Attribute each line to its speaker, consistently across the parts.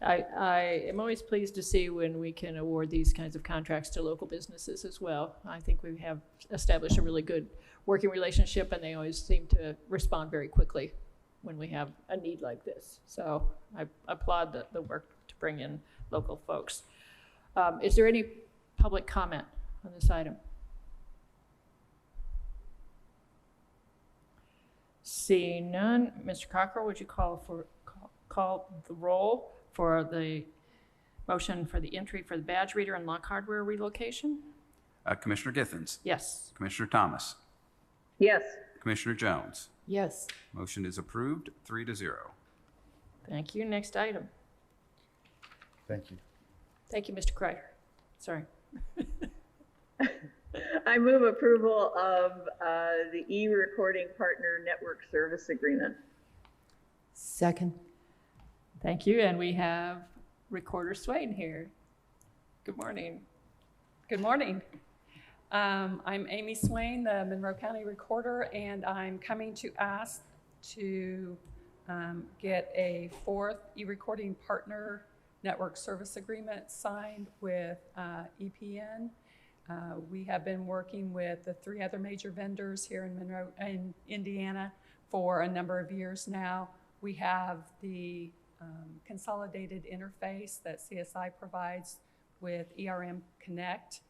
Speaker 1: I, I am always pleased to see when we can award these kinds of contracts to local businesses as well. I think we have established a really good working relationship, and they always seem to respond very quickly when we have a need like this. So I applaud the, the work to bring in local folks. Um, Is there any public comment on this item? Seeing none, Mr. Cockrell, would you call for, call- call the roll for the motion for the entry for the badge reader and lock hardware relocation?
Speaker 2: Uh, Commissioner Githens.
Speaker 1: Yes.
Speaker 2: Commissioner Thomas.
Speaker 3: Yes.
Speaker 2: Commissioner Jones.
Speaker 1: Yes.
Speaker 2: Motion is approved, three to zero.
Speaker 1: Thank you. Next item.
Speaker 4: Thank you.
Speaker 1: Thank you, Mr. Kreider. Sorry.
Speaker 3: I move approval of uh, the e-recording partner network service agreement.
Speaker 5: Second.
Speaker 1: Thank you, and we have Recorder Swain here. Good morning.
Speaker 6: Good morning. Um, I'm Amy Swain, the Monroe County Recorder, and I'm coming to ask to um, get a fourth e-recording partner network service agreement signed with uh, EPN. Uh, We have been working with the three other major vendors here in Monroe, in Indiana, for a number of years now. We have the um, consolidated interface that CSI provides with ERM Connect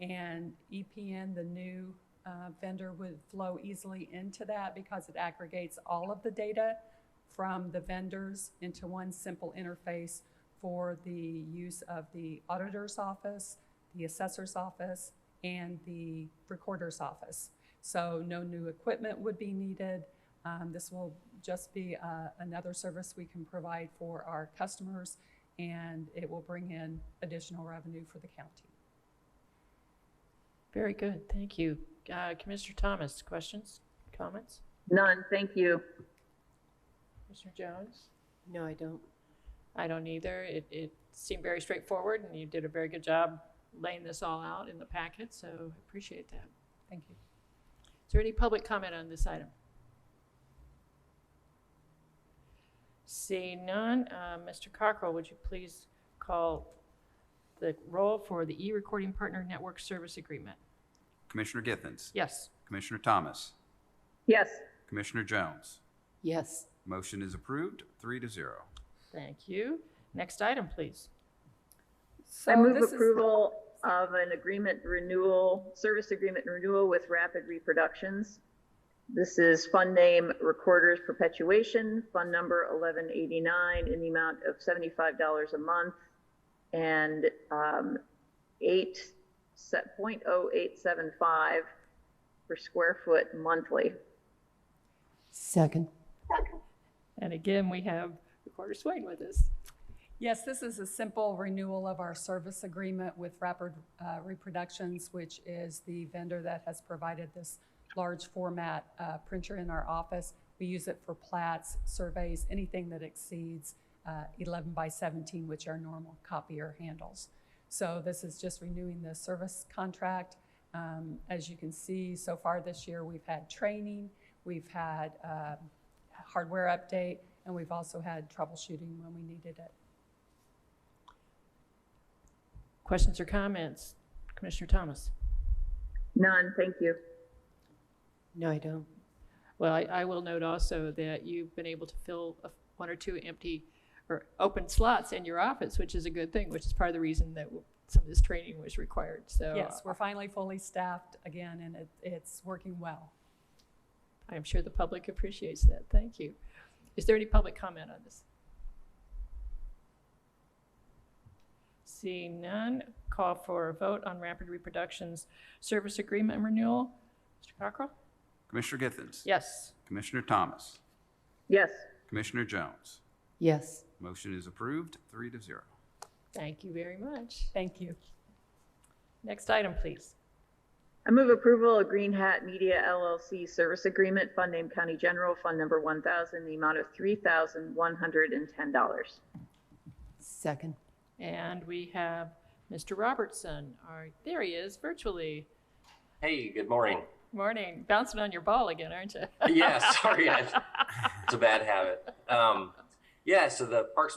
Speaker 6: and EPN, the new uh, vendor, would flow easily into that because it aggregates all of the data from the vendors into one simple interface for the use of the auditor's office, the assessor's office, and the recorder's office. So no new equipment would be needed. Um, This will just be uh, another service we can provide for our customers, and it will bring in additional revenue for the county.
Speaker 1: Very good, thank you. Uh, Commissioner Thomas, questions, comments?
Speaker 3: None, thank you.
Speaker 1: Commissioner Jones?
Speaker 5: No, I don't.
Speaker 1: I don't either. It, it seemed very straightforward, and you did a very good job laying this all out in the packet, so I appreciate that.
Speaker 6: Thank you.
Speaker 1: Is there any public comment on this item? Seeing none, uh, Mr. Cockrell, would you please call the roll for the e-recording partner network service agreement?
Speaker 2: Commissioner Githens.
Speaker 1: Yes.
Speaker 2: Commissioner Thomas.
Speaker 3: Yes.
Speaker 2: Commissioner Jones.
Speaker 5: Yes.
Speaker 2: Motion is approved, three to zero.
Speaker 1: Thank you. Next item, please.
Speaker 6: So
Speaker 3: I move
Speaker 6: this is-
Speaker 3: approval of an agreement renewal, service agreement renewal with Rapid Reproductions. This is fund name Recorders Perpetuation, fund number 1189 in the amount of $75 a month and um, 8, se- 0.0875 per square foot monthly.
Speaker 5: Second.
Speaker 1: And again, we have Recorder Swain with us.
Speaker 6: Yes, this is a simple renewal of our service agreement with Rapid uh, Reproductions, which is the vendor that has provided this large format uh, printer in our office. We use it for plats, surveys, anything that exceeds uh, 11 by 17, which our normal copier handles. So this is just renewing the service contract. Um, As you can see, so far this year, we've had training, we've had uh, hardware update, and we've also had troubleshooting when we needed it.
Speaker 1: Questions or comments? Commissioner Thomas?
Speaker 3: None, thank you.
Speaker 5: No, I don't.
Speaker 1: Well, I, I will note also that you've been able to fill a- one or two empty or open slots in your office, which is a good thing, which is part of the reason that some of this training was required. So uh,
Speaker 6: Yes, we're finally fully staffed again, and it, it's working well.
Speaker 1: I'm sure the public appreciates that. Thank you. Is there any public comment on this? Seeing none, call for a vote on Rapid Reproductions Service Agreement Renewal. Mr. Cockrell?
Speaker 2: Commissioner Githens.
Speaker 1: Yes.
Speaker 2: Commissioner Thomas.
Speaker 3: Yes.
Speaker 2: Commissioner Jones.
Speaker 5: Yes.
Speaker 2: Motion is approved, three to zero.
Speaker 1: Thank you very much.
Speaker 6: Thank you.
Speaker 1: Next item, please.
Speaker 3: I move approval of Green Hat Media LLC Service Agreement, Fund Name County General, Fund Number 1,000, the amount of $3,110.
Speaker 5: Second.
Speaker 1: And we have Mr. Robertson. Our, there he is virtually.
Speaker 7: Hey, good morning.
Speaker 1: Morning. Bouncing on your ball again, aren't you?
Speaker 7: Yeah, sorry, I, it's a bad habit. Um, yeah, so the Parks and